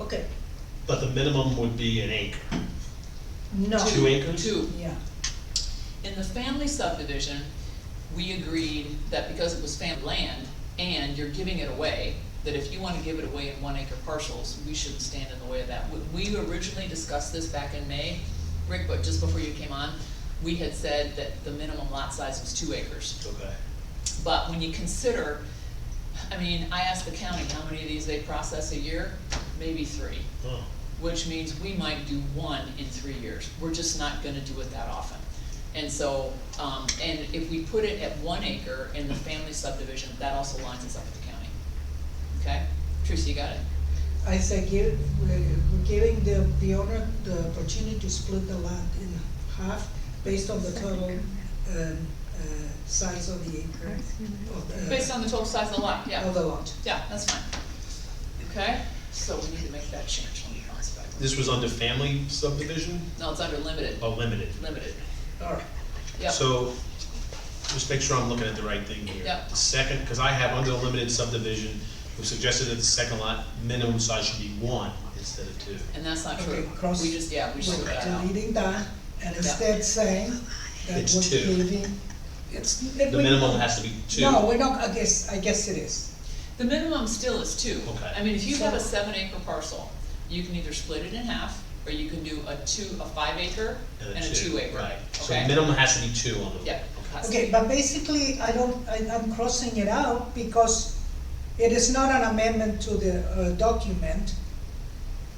Okay, But the minimum would be an acre. no. Two acres? Two. Yeah, In the family subdivision, we agreed that because it was fam land and you're giving it away, that if you wanna give it away in one acre parcels, we shouldn't stand in the way of that. When We originally discussed this back in May, Rick, but just before you came on, we had said that the minimum lot size was two acres. Okay. But when you consider, I mean, I asked the county how many of these they process a year, maybe three, Oh, which means we might do one in three years. We're just not gonna do it that often. And so, um, and if we put it at one acre in the family subdivision, that also lines us up with the county. Okay? Teresa, you got it? I say give, we're we're giving the, the owner the opportunity to split the lot in half based on the total, um, uh, size of the acre. of the- Based on the total size of the lot, yeah. Of the lot. Yeah, that's fine. Okay? So we need to make that change. Let me bounce back. this was under family subdivision, No, it's under limited, oh, limited. limited. All right. Yep. So, just make sure I'm looking at the right thing here. Yeah. The second, because I have under the limited subdivision, we suggested that the second lot minimum size should be one instead of two. And that's not Okay, true. cross- We just, yeah, we just took We're that out. Deleting that, and instead saying that It's we're two. giving, it's. The minimum has to be two. No, we're not, I guess, I guess it is. The minimum still is two. Okay. I mean, if you have a seven acre parcel, you can either split it in half, or you can do a two, a five acre and a two acre. Right, so Okay? minimum has to be two on the. Yeah. has to Okay, be. but basically, I don't, I, I'm crossing it out because it is not an amendment to the, uh, document.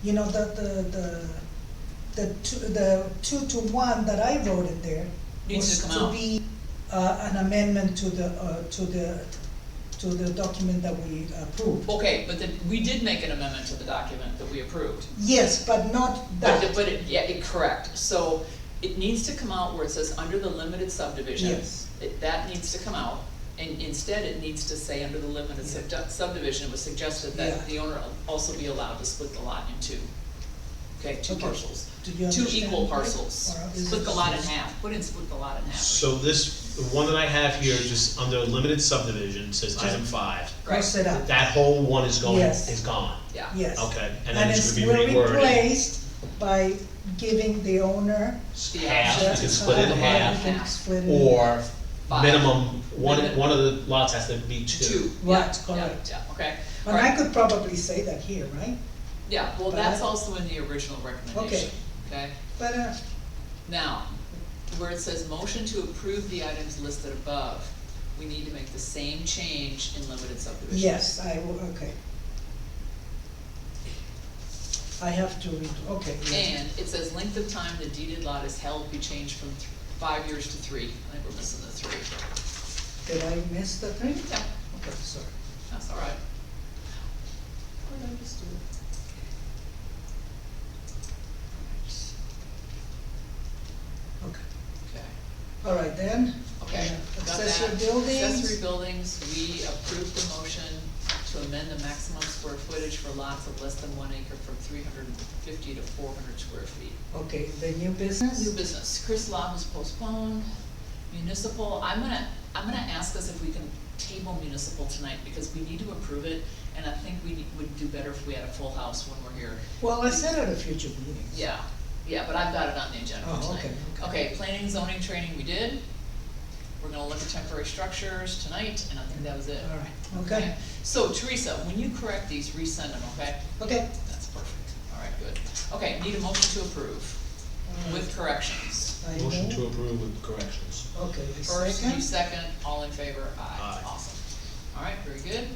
You know, the, the, the, the two, the two to one that I wrote in there Needs was to come to out. be, uh, an amendment to the, uh, to the, to the document that we approved. Okay, but then, we did make an amendment to the document that we approved. Yes, but not But, that, but it, yeah, it, correct, so it needs to come out where it says under the limited subdivision. Yes. It- That needs to come out, and instead it needs to say under the limited subdu- subdivision, it was suggested Yeah. that the owner also be allowed to split the lot in two. Okay, two Okay. parcels, Do you two understand equal that? parcels, Or is split it the lot in just- half, put in split the lot in half. So this, the one that I have here, just under limited subdivision, says item five, cross it out, that whole one is going, Yes. is gone. Yeah. yes. Okay, and then And it's it's, gonna we're be reworded. replaced by giving the owner The Half, option you can split it in to half, divide it in Split it. or Five. minimum, one, Minimum. one of the lots has to be Two, yeah, Right, yeah, correct. yeah, okay. All And I right. could probably say that here, right? Yeah, well, But I- that's also in the original recommendation, okay? But, uh, Now, where it says motion to approve the items listed above, we need to make the same change in limited subdivision. yes, I will, okay. I have to read, okay. yeah. And it says length of time the deeded lot is held be changed from th- five years to three, I think we're missing the three. Did I miss the thing? Yeah, Okay, sorry. that's all right. What did I just do? Okay. Okay. All right, then. Okay, uh, got that. Accessory buildings. Accessory buildings, we approved the motion to amend the maximum square footage for lots of less than one acre from three hundred and fifty to four hundred square feet. Okay, the new New business. business, Chris Law was postponed, municipal, I'm gonna, I'm gonna ask us if we can table municipal tonight, because we need to approve it, and I think we need- would do better if we had a full house when we're here. Well, I said at a future meeting. Yeah, yeah, but I've got it on the agenda for Oh, tonight. okay, Okay, planning, zoning, training, we did. We're gonna look at temporary structures tonight, and I think that was it. All right, okay, So Teresa, when you correct these, resend them, okay? okay. That's perfect, all right, good. Okay, need a motion to approve Mm. with corrections. I Motion know. to approve with corrections. Okay, the First, second. you second, all in favor, aye, Aye. awesome. All right, very good.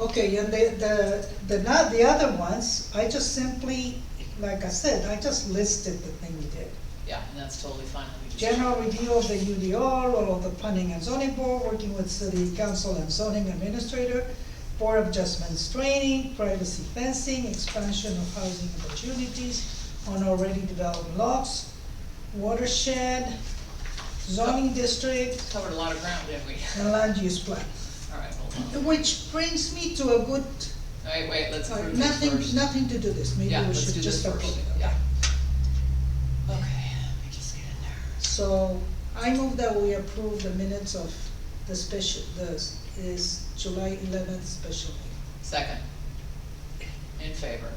Okay, and the, the, the, not the other ones, I just simply, like I said, I just listed the thing we did. Yeah, and that's totally fine, let me just. General review of the UDR, all of the planning and zoning board, working with city council and zoning administrator, board of adjustments training, privacy fencing, expansion of housing opportunities on already developed lots, watershed, zoning district, Covered a lot of ground, didn't we? and land use plan. All right, hold on. Which brings me to a good, All right, wait, let's uh, approve this first. nothing, nothing to do this, maybe Yeah, we let's should do this just approve it. first, yeah. Okay, let me just get in there. So I move that we approve the minutes of the special, the, is July eleventh special meeting. Second. In favor?